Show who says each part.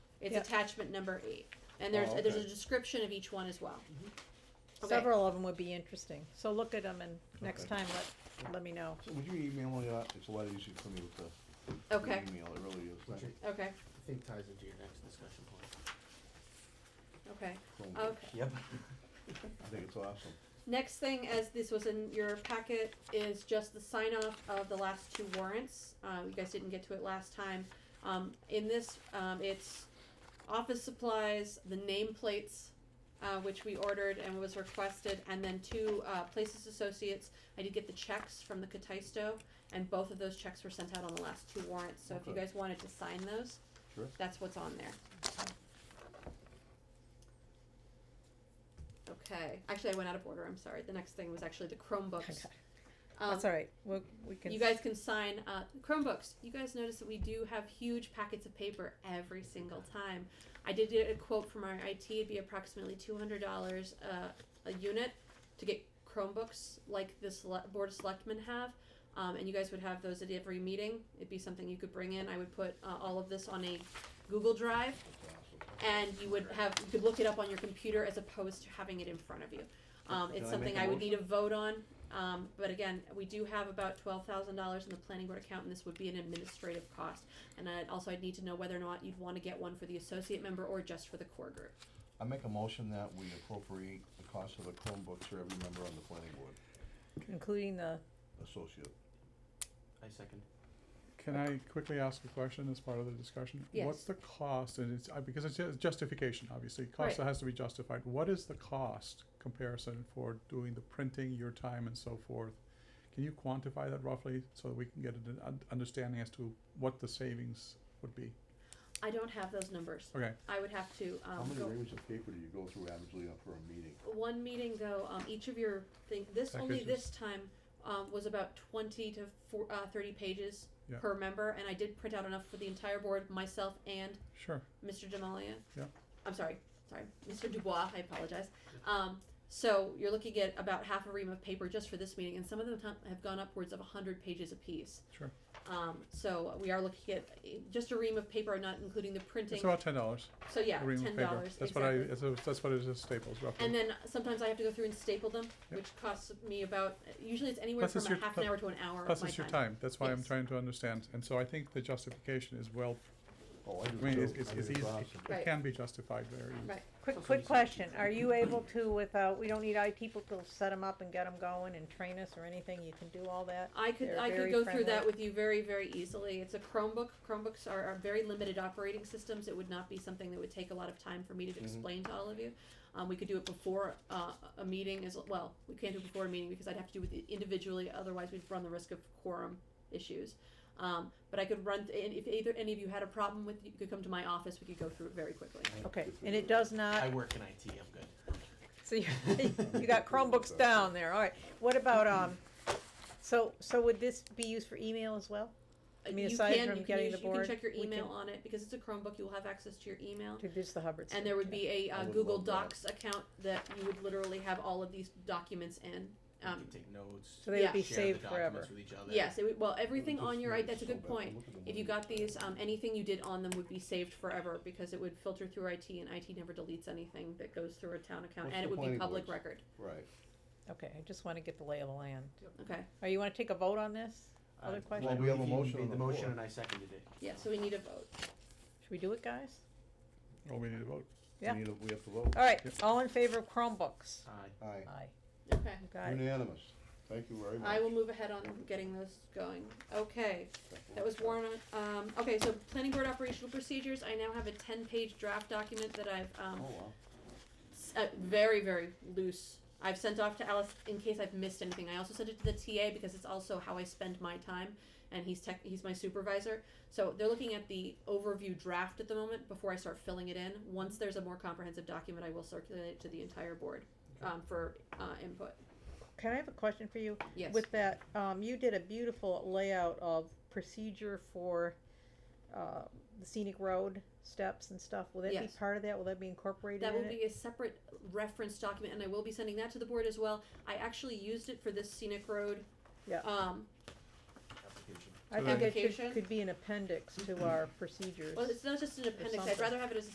Speaker 1: It's
Speaker 2: Yep.
Speaker 1: attachment number eight, and there's,
Speaker 3: Oh,
Speaker 1: there's a
Speaker 3: okay.
Speaker 1: description of each one as well. Okay.
Speaker 2: Several of them would be interesting, so look at them and next
Speaker 3: Okay.
Speaker 2: time, let, let me know.
Speaker 3: So would you email me that? It's a lot easier for me with the
Speaker 1: Okay,
Speaker 3: email, it really is.
Speaker 4: Which I
Speaker 1: okay,
Speaker 4: think ties into your next discussion point.
Speaker 1: okay,
Speaker 3: Chrome.
Speaker 1: okay.
Speaker 4: Yep.
Speaker 3: I think it's awesome.
Speaker 1: Next thing, as this was in your packet, is just the sign off of the last two warrants. Uh, you guys didn't get to it last time. Um, in this, um, it's office supplies, the nameplates, uh, which we ordered and was requested, and then two, uh, Places Associates. I did get the checks from the Cataisto, and both of those checks were sent out on the last two warrants, so if you
Speaker 3: Okay.
Speaker 1: guys wanted to sign those,
Speaker 3: Sure.
Speaker 1: that's what's on there. Okay, actually, I went out of order, I'm sorry. The next thing was actually the Chromebooks.
Speaker 2: Okay.
Speaker 1: Um,
Speaker 2: That's all right, we, we can.
Speaker 1: you guys can sign uh, Chromebooks. You guys notice that we do have huge packets of paper every single time. I did get a quote from our IT. It'd be approximately two hundred dollars uh, a unit to get Chromebooks like the sele- board of selectmen have, um, and you guys would have those at every meeting. It'd be something you could bring in. I would put uh, all of this on a Google Drive,
Speaker 3: It's awesome.
Speaker 1: and you would have you could look it up on your computer as opposed to having it in front of you. Um,
Speaker 3: Can
Speaker 1: it's
Speaker 3: I
Speaker 1: something
Speaker 3: make a
Speaker 1: I would need a vote on, um, but again, we do have about twelve thousand dollars in the planning board account, and this would be an administrative cost. And I'd, also, I'd need to know whether or not you'd want to get one for the associate member or just for the core group.
Speaker 3: I make a motion that we appropriate the cost of the Chromebooks for every member on the planning board
Speaker 2: Including the,
Speaker 3: associate.
Speaker 4: I second.
Speaker 5: Can I quickly ask a question as part of the discussion?
Speaker 1: Yes.
Speaker 5: What's the cost, and it's, uh, because it's ju- justification, obviously,
Speaker 1: Right.
Speaker 5: cost that has to be justified, what is the cost comparison for doing the printing, your time and so forth? Can you quantify that roughly, so that we can get an un- understanding as to what the savings would be?
Speaker 1: I don't have those numbers.
Speaker 5: Okay,
Speaker 1: I would have to
Speaker 3: How
Speaker 1: um,
Speaker 3: many
Speaker 1: go
Speaker 3: reams of paper do you go through averagely up for a meeting?
Speaker 1: one meeting though. Um, each of your thing this only
Speaker 5: Packages.
Speaker 1: this time um, was about twenty to four, uh, thirty pages
Speaker 5: Yeah.
Speaker 1: per member, and I did print out enough for the entire board, myself and
Speaker 5: sure,
Speaker 1: Mr. Demalia.
Speaker 5: Yeah.
Speaker 1: I'm sorry, sorry, Mr. Dubois. I apologize. Um, so you're looking at about half a ream of paper just for this meeting, and some of them ha- have gone upwards of 100 pages apiece.
Speaker 5: Sure.
Speaker 1: Um, so we are looking at eh, just a ream of paper, not including the printing.
Speaker 5: it's about ten dollars,
Speaker 1: so yeah,
Speaker 5: a ream
Speaker 1: ten
Speaker 5: of paper,
Speaker 1: dollars.
Speaker 5: that's what I, that's, what- that's what it is at Staples roughly.
Speaker 1: And then sometimes I have to go through and staple them,
Speaker 5: Yeah.
Speaker 1: which costs me about. Usually it's anywhere
Speaker 5: Plus it's
Speaker 1: from a
Speaker 5: your-
Speaker 1: half an
Speaker 5: plus-
Speaker 1: hour to an hour
Speaker 5: Plus
Speaker 1: of my
Speaker 5: it's your time, that's why I'm
Speaker 1: Yes.
Speaker 5: trying to understand, and so I think the justification is well,
Speaker 3: Oh, I
Speaker 5: I
Speaker 3: do
Speaker 5: mean,
Speaker 3: too.
Speaker 5: it's, it's,
Speaker 3: I
Speaker 5: it's
Speaker 3: think
Speaker 5: easy,
Speaker 3: awesome.
Speaker 5: it-
Speaker 1: Right.
Speaker 5: it can be justified very easily.
Speaker 1: Right.
Speaker 2: quick,
Speaker 4: Also
Speaker 2: quick
Speaker 4: just-
Speaker 2: question, are you able to, without, we don't need IT people to set them up and get them going and train us or anything, you can do all that?
Speaker 1: I could
Speaker 2: They're
Speaker 1: I could
Speaker 2: very
Speaker 1: go through that
Speaker 2: friendly.
Speaker 1: with you very very easily. It's a Chromebook. Chromebooks are, are very limited operating systems. It would not be something that would take a lot of time for me to
Speaker 3: Mhm.
Speaker 1: explain to all of you. Um, we could do it before uh, a meeting as well. We can't do it before a meeting because I'd have to do it individually. Otherwise, we'd run the risk of quorum issues. Um, but I could run. Th- and if either any of you had a problem with, you could come to my office. We could go through it very quickly.
Speaker 2: Okay, and it does
Speaker 4: I
Speaker 2: not,
Speaker 4: work in IT, I'm good.
Speaker 2: so you, you got Chromebooks down there, all right, what about, um, so, so would this be used for email as well? I mean,
Speaker 1: you
Speaker 2: aside
Speaker 1: can,
Speaker 2: from
Speaker 1: you can
Speaker 2: getting
Speaker 1: use-
Speaker 2: the
Speaker 1: you
Speaker 2: board,
Speaker 1: can check your
Speaker 2: we
Speaker 1: email
Speaker 2: can-
Speaker 1: on it because it's a Chromebook. You will have access to your email.
Speaker 2: To just the Hubbard.
Speaker 1: And there would
Speaker 2: yeah.
Speaker 1: be a
Speaker 3: I
Speaker 1: uh,
Speaker 3: would
Speaker 1: Google
Speaker 3: love that.
Speaker 1: Docs account that you would literally have all of these documents in.
Speaker 4: You
Speaker 1: Um,
Speaker 4: can take notes,
Speaker 2: So they
Speaker 1: yeah.
Speaker 2: would be
Speaker 4: share the
Speaker 2: saved
Speaker 4: documents
Speaker 2: forever.
Speaker 4: with each other.
Speaker 1: yes, it would, well, everything
Speaker 3: Just
Speaker 1: on your, i-
Speaker 3: make it
Speaker 1: that's a
Speaker 3: so
Speaker 1: good
Speaker 3: bad.
Speaker 1: point.
Speaker 3: Look at the
Speaker 1: If you
Speaker 3: money.
Speaker 1: got these, um, anything you did on them would be saved forever because it would filter through IT and IT never deletes anything that goes through a town account
Speaker 3: What's
Speaker 1: and it
Speaker 3: the
Speaker 1: would be
Speaker 3: planning
Speaker 1: public
Speaker 3: board's-
Speaker 1: record.
Speaker 3: Right.
Speaker 2: Okay, I just wanna get the lay of the land.
Speaker 1: Okay,
Speaker 2: Are you wanna take a vote on this? Other
Speaker 4: Uh,
Speaker 2: questions?
Speaker 3: Well, we have a
Speaker 4: he
Speaker 3: motion
Speaker 4: made
Speaker 3: on
Speaker 4: the
Speaker 3: the
Speaker 4: motion
Speaker 3: floor.
Speaker 4: and I seconded it.
Speaker 1: yeah, so we need a vote.
Speaker 2: Should we do it, guys?
Speaker 5: Well, we need to vote.
Speaker 2: Yeah.
Speaker 3: We need to, we have to vote.
Speaker 2: All right,
Speaker 5: Yep.
Speaker 2: all in favor of Chromebooks?
Speaker 3: Aye.
Speaker 4: Aye.
Speaker 2: Aye.
Speaker 1: Okay.
Speaker 2: You got it.
Speaker 3: Unanimous. Thank you very much.
Speaker 1: I will move ahead on getting those going. Okay, that was
Speaker 3: warm.
Speaker 1: Warren, um, okay, so planning board operational procedures, I now have a ten-page draft document that I've,
Speaker 3: Oh,
Speaker 1: um,
Speaker 3: wow.
Speaker 1: s- uh, very very loose. I've sent off to Alice in case I've missed anything. I also sent it to the TA because it's also how I spend my time, and he's tech, he's my supervisor. So they're looking at the overview draft at the moment before I start filling it in. Once there's a more comprehensive document, I will circulate it to the entire board um, for uh, input.
Speaker 2: Can I have a question for you?
Speaker 1: Yes.
Speaker 2: With that, um, you did a beautiful layout of procedure for, uh, the scenic road steps and stuff. Will that be
Speaker 1: Yes.
Speaker 2: part of that? Will that be incorporated
Speaker 1: That
Speaker 2: in
Speaker 1: will
Speaker 2: it?
Speaker 1: be a separate reference document, and I will be sending that to the board as well. I actually used it for this scenic road.
Speaker 2: Yeah.
Speaker 1: Um,
Speaker 4: Application.
Speaker 2: I think it
Speaker 1: Application?
Speaker 2: should, could be an appendix to our procedures.
Speaker 1: well, it's not just an appendix. I'd
Speaker 2: something.
Speaker 1: rather have it as a